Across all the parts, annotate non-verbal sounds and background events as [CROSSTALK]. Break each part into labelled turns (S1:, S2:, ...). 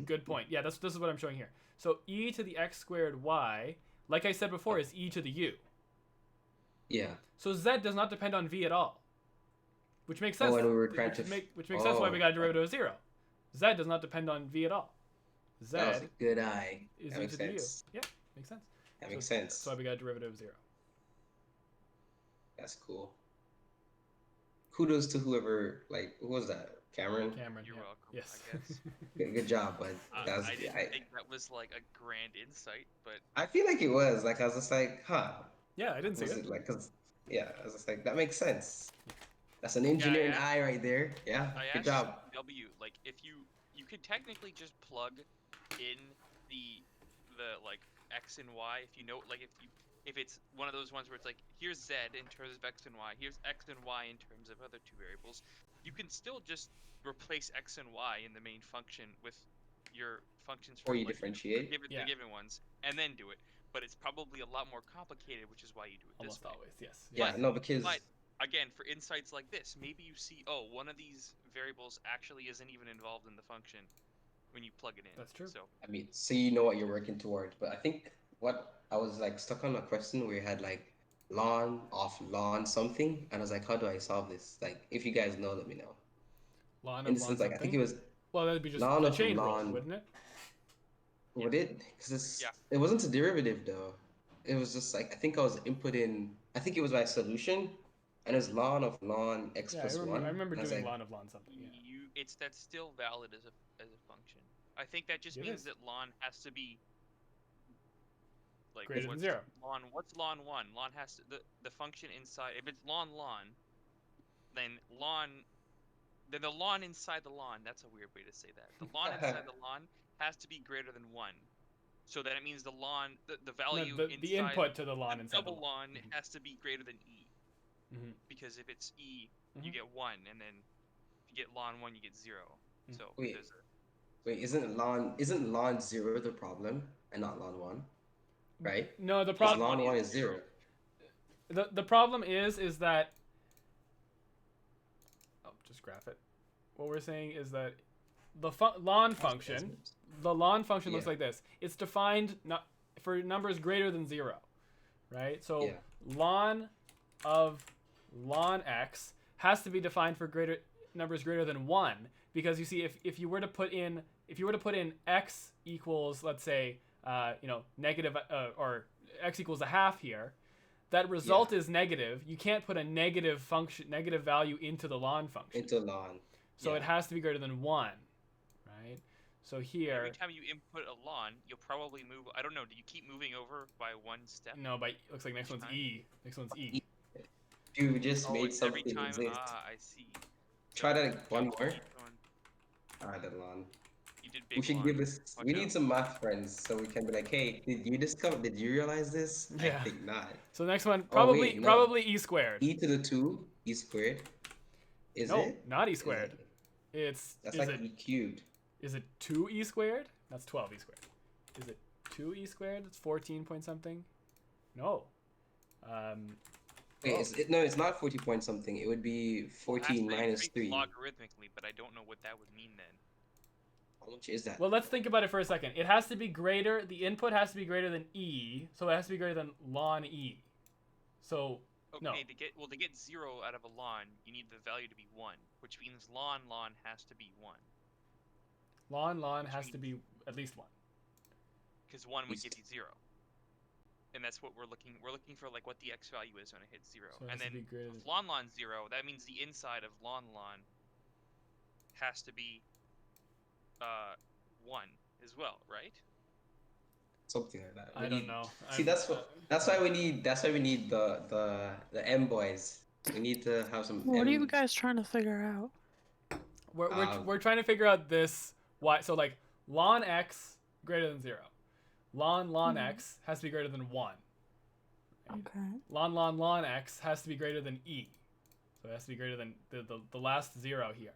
S1: good point. Yeah, that's this is what I'm showing here. So e to the x squared y, like I said before, is e to the u.
S2: Yeah.
S1: So z does not depend on v at all, which makes sense.
S2: Oh, and we were
S1: which
S2: trying to. f-
S1: make- which makes sense why we
S2: oh,
S1: got a derivative of zero. Z does not depend on v at all. Z
S2: That was a good eye.
S1: is
S2: Oh, that
S1: e
S2: makes
S1: to the u.
S2: sense.
S1: Yeah, makes sense.
S2: That
S1: So
S2: makes
S1: That's
S2: sense.
S1: why we got a derivative of zero.
S2: That's cool. Kudos to whoever. Like, who was that? Cameron.
S1: Cameron.
S3: You're
S1: yeah.
S3: welcome.
S1: Yes.
S3: I guess.
S2: Good, good job, bud.
S3: Uh,
S2: That was,
S3: I didn't
S2: I,
S3: think that was like a grand insight, but
S2: I feel like it was. Like, I was just like, huh.
S1: [LAUGHS] yeah, I didn't see
S2: Was
S1: it.
S2: it like, 'cause- yeah, I was just like, that makes sense. That's an engineering
S3: yeah. Oh,
S2: eye right there. Yeah.
S3: I
S2: Good
S3: asked
S2: job.
S3: W like if you you could technically just plug in the the like x and y if you know like if you if it's one of those ones where it's like here's z in terms of x and y here's x and y in terms of other two variables you can still just replace x and y in the main function with your functions
S2: Or
S3: from,
S2: you
S3: like, the,
S2: differentiate.
S3: given,
S1: Yeah.
S3: the given ones and then do it but it's probably a lot more complicated which is why you do it this
S1: Almost
S3: way
S1: always. Yes.
S2: Yeah. No, because
S3: but- again for insights like this maybe you see oh one of these variables actually isn't even involved in the function when you plug it in
S1: That's true.
S3: so
S2: I mean, so you know what you're working toward. But I think what I was like stuck on a question where you had like lawn off lawn something, and I was like, how do I solve this? Like, if you guys know, let me know.
S1: Lawn
S2: In
S1: of lawn
S2: this sense, like I think it
S1: something?
S2: was
S1: Well, that'd be just
S2: lawn
S1: the
S2: of
S1: chain rule,
S2: lawn.
S1: wouldn't it?
S3: Yeah.
S2: what it because it's
S3: Yeah.
S2: it wasn't a derivative though. It was just like I think I was inputting. I think it was my solution, and it's lawn of lawn x
S1: Yeah, I
S2: plus
S1: remember,
S2: one.
S1: I remember
S2: and was
S1: doing
S2: like,
S1: lawn of lawn something. Yeah.
S3: you it's that's still valid as a as a function i think that just
S1: It
S3: means
S1: is.
S3: that lon has to be like
S1: Greater than
S3: what's
S1: zero.
S3: lon what's lon one lon has to the, the function inside if it's lon lon then lon then the lon inside the lon that's a weird way to say that the
S1: [LAUGHS]
S3: lon inside the lon has to be greater than one so that it means the lon the, the
S1: No,
S3: value
S1: the,
S3: inside
S1: the input to the
S3: the
S1: lawn and
S3: double lon
S1: Mhm.
S3: has to be greater than e
S1: Mhm.
S3: because if it's e
S1: Mhm.
S3: you get one and then if you get lon one you get 0
S1: Mm.
S3: so
S2: Wait.
S3: there's a,
S2: Wait, isn't lawn isn't lawn zero the problem and not lawn one, right?
S1: No, the
S2: Because
S1: problem
S2: lawn one is zero.
S1: the, the problem is is that I'll just graph it. What we're saying is that the fu- lawn function, the lawn function looks
S2: Yeah.
S1: like this. It's defined not for numbers greater than 0, right? So
S2: Yeah.
S1: lawn of lawn x has to be defined for greater numbers greater than 1 because you see if if you were to put in if you were to put in x equals let's say uh, you know negative uh, or x equals a half here that result is negative you can't put a negative function negative value into the lawn function
S2: into lawn.
S1: so
S2: yeah.
S1: it has to be greater than 1 right so here
S3: every time you input a lon you'll probably move i don't know do you keep moving over by one step
S1: no but looks like next one's e next one's e
S2: You just
S3: Oh,
S2: made
S3: it's every
S2: something
S3: time
S2: exist.
S3: ah i see
S2: Try
S3: So
S2: that like, one
S3: you
S2: more.
S3: keep going-
S2: Alright, then lawn.
S3: you did big
S2: We should
S3: lon.
S2: give this.
S3: Watch
S2: We
S3: out.
S2: need some math friends so we can be like, hey, did you discover? Did you realize this?
S1: Yeah.
S2: I think not.
S1: so the next one probably
S2: Oh, wait, no.
S1: probably e squared
S2: E to the two, e squared. Is
S1: no
S2: it?
S1: not e
S2: Is it?
S1: squared it's
S2: That's
S1: is
S2: like
S1: it
S2: e cubed.
S1: Is it 2 e squared? That's 12 e squared. Is it 2 e squared? That's 14 point something? No. Um,
S2: Wait,
S1: Oh.
S2: is it, no, it's not forty point something. It would be
S3: We'll have to
S2: fourteen minus
S3: increase
S2: three.
S3: logarithmically but i don't know what that would mean then
S2: How much is that?
S1: well, let's think about it for a second. It has to be greater, the input has to be greater than e, so it has to be greater than ln e. So,
S3: okay
S1: No.
S3: to get well to get zero out of a lon you need the value to be one which means lon lon has to be one
S1: ln ln has to be at least 1.
S3: because one would
S2: Is-
S3: give you zero, and that's what we're looking. We're looking for like what the x value is when it hits zero,
S1: So it has
S3: and
S1: to be
S3: then
S1: greater
S3: with
S1: than.
S3: lon lon zero. That means the inside of lon lon has to be uh one as well, right?
S2: Something like that. We
S1: I don't
S2: need-
S1: know.
S2: See,
S1: I'm-
S2: that's what. That's why we need. That's why we need the the the M boys. We need to have some.
S4: What are you
S2: M-
S4: guys trying to figure out?
S1: We're, we're,
S2: Um,
S1: we're trying to figure out this y. So like ln x greater than zero, ln ln
S4: Mhm.
S1: x has to be greater than one. Right?
S4: Okay.
S1: Lon lon lon x has to be greater than e, so it has to be greater than the the, the last zero here.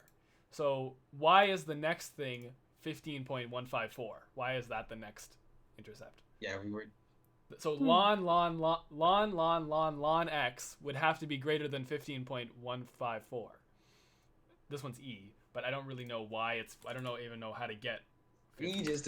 S1: So y is the next thing fifteen point one five four. Why is that the next intercept?
S2: Yeah, we were.
S1: So
S4: Hmm.
S1: lon lon lon lon lon lon lon x would have to be greater than fifteen point one five four. This one's e, but I don't really know why it's. I don't know even know how to get
S2: We just